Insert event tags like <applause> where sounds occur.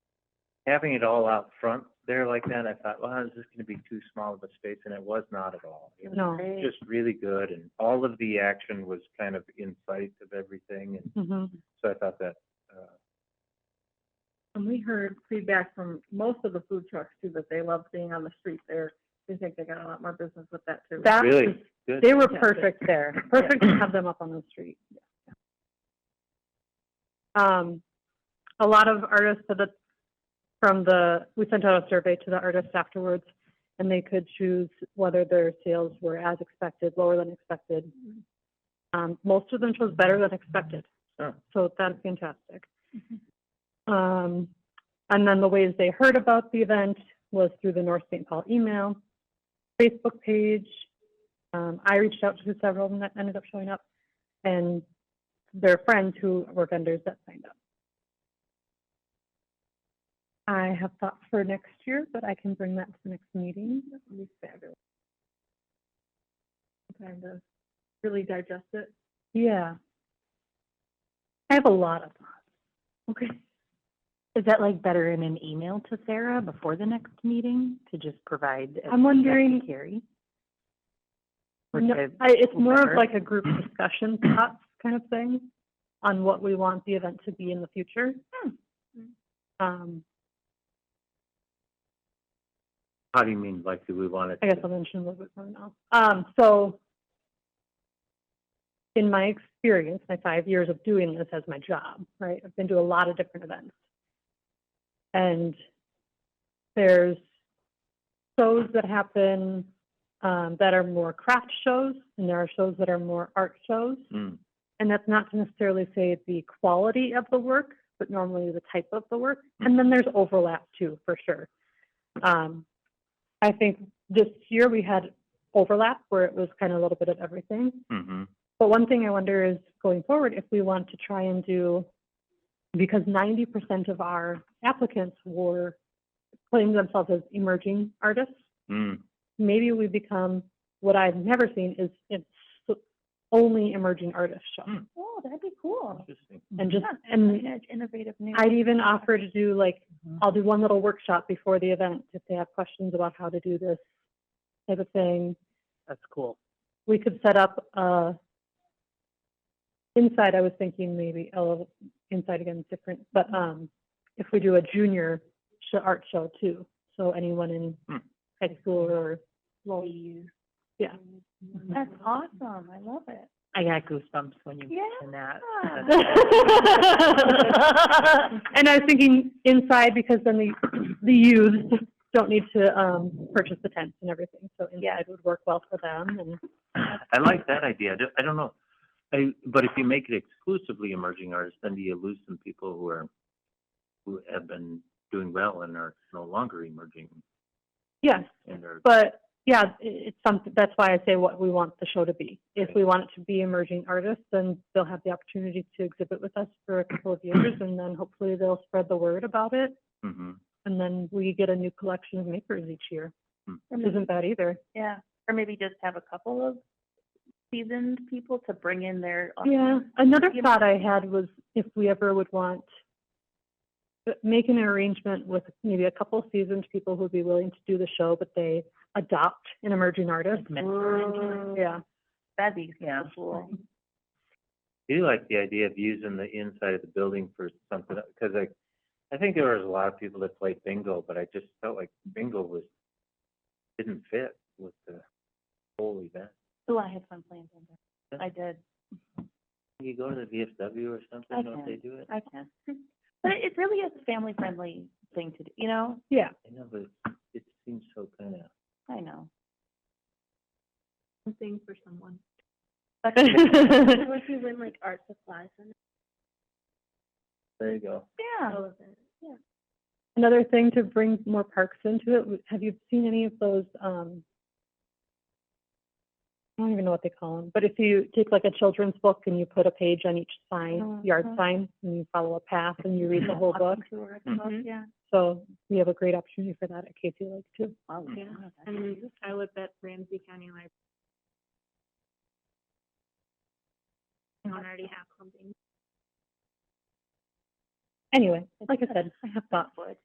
having it all out front there like that, I thought, well, is this gonna be too small of a space? And it was not at all. It was No. Just really good and all of the action was kind of in sight of everything and Mhm. so I thought that, uh, And we heard feedback from most of the food trucks too, that they love being on the street there. They think they got a lot more business with that too. That, really good. they were Yeah. perfect there, perfect to have them up on the street. Um, a lot of artists said that from the, we sent out a survey to the artists afterwards, and they could choose whether their sales were as expected, lower than expected. Um, most of them chose better than expected. Oh. So that's fantastic. Um, and then the ways they heard about the event was through the North St. Paul email, Facebook page. Um, I reached out to several of them that ended up showing up and their friends who were vendors that signed up. I have thoughts for next year, but I can bring that to the next meeting. That would be fabulous. Time to really digest it. Yeah. I have a lot of thoughts. Okay. Is that like better in an email to Sarah before the next meeting to just provide? as I'm wondering- feedback to Carrie? Or No, to- I, it's more of whoever. like a group discussion thoughts kind of thing on what we want the event to be in the future. Um, How do you mean, like, do we want it? I guess I'll mention a little bit more now. Um, so in my experience, my five years of doing this as my job, right? I've been to a lot of different events. And there's shows that happen um, that are more craft shows, and there are shows that are more art shows. Hmm, And that's not to necessarily say the quality of the work, but normally the type of the work. And then there's overlap too, for sure. Um, I think this year we had overlap where it was kind of a little bit of everything. mhm. But one thing I wonder is going forward, if we want to try and do, because ninety percent of our applicants were claiming themselves as emerging artists Hmm. maybe we become what I've never seen is it's only emerging artist show. Hmm. Oh, that'd be cool. Interesting. And just and innovative new. I'd even offer to do like Mhm. I'll do one little workshop before the event if they have questions about how to do this type of thing. That's cool. We could set up uh inside I was thinking maybe a little inside again is different, Mm-hmm. but um if we do a junior sh- art show too. So anyone in Hmm. high school or low Yeah. That's awesome. I love it. I got goosebumps when you mentioned that. Yeah. <laughs> And I was thinking inside because then the, the youth don't need to, um, purchase the tents and everything. So inside would work well for them and, I like that idea. I don't, I don't know. I, but if you make it exclusively emerging artists, then do you lose some people who are, who have been doing well and are no longer emerging yes, and are, but yeah, i- it's something, that's why I say what we want the show to be. If we want it to be emerging artists, then they'll have the opportunity to exhibit with us for a couple of years and then hopefully they'll spread the word about it. mhm. And then we get a new collection of makers each year. Hmm. <laughs> Isn't bad either. Yeah, or maybe just have a couple of seasoned people to bring in their. Yeah, another You know- thought I had was if we ever would want, uh, make an arrangement with maybe a couple seasoned people who would be willing to do the show, but they adopt an emerging artist. Like mentoring. Yeah, That'd be Yeah. cool. I do like the idea of using the inside of the building for something, because I, I think there was a lot of people that played bingo, but I just felt like bingo was, didn't fit with the whole event. Ooh, Oh, I had fun playing bingo. I did. You go to the VFW or something, don't they do it? I can. <laughs> But it, it really is a family friendly thing to do, you know? yeah. I know, but it seems so kind of. I know. something for <laughs> someone. That Or if you win like art supplies and There you go. Yeah. all of it. Yeah. <laughs> Another thing to bring more parks into it, w- have you seen any of those, um, I don't even know what they call them, but if you take like a children's book and you put a page on each sign, yard Mhm. sign, and you follow a path and you read the whole book. Mm-hmm. Mhm. Yeah. So we have a great opportunity for that at Casey Lake too. Wow. Yeah. And I live at Ramsey County Library. I don't already have something. Anyway, like I said, I have thoughts.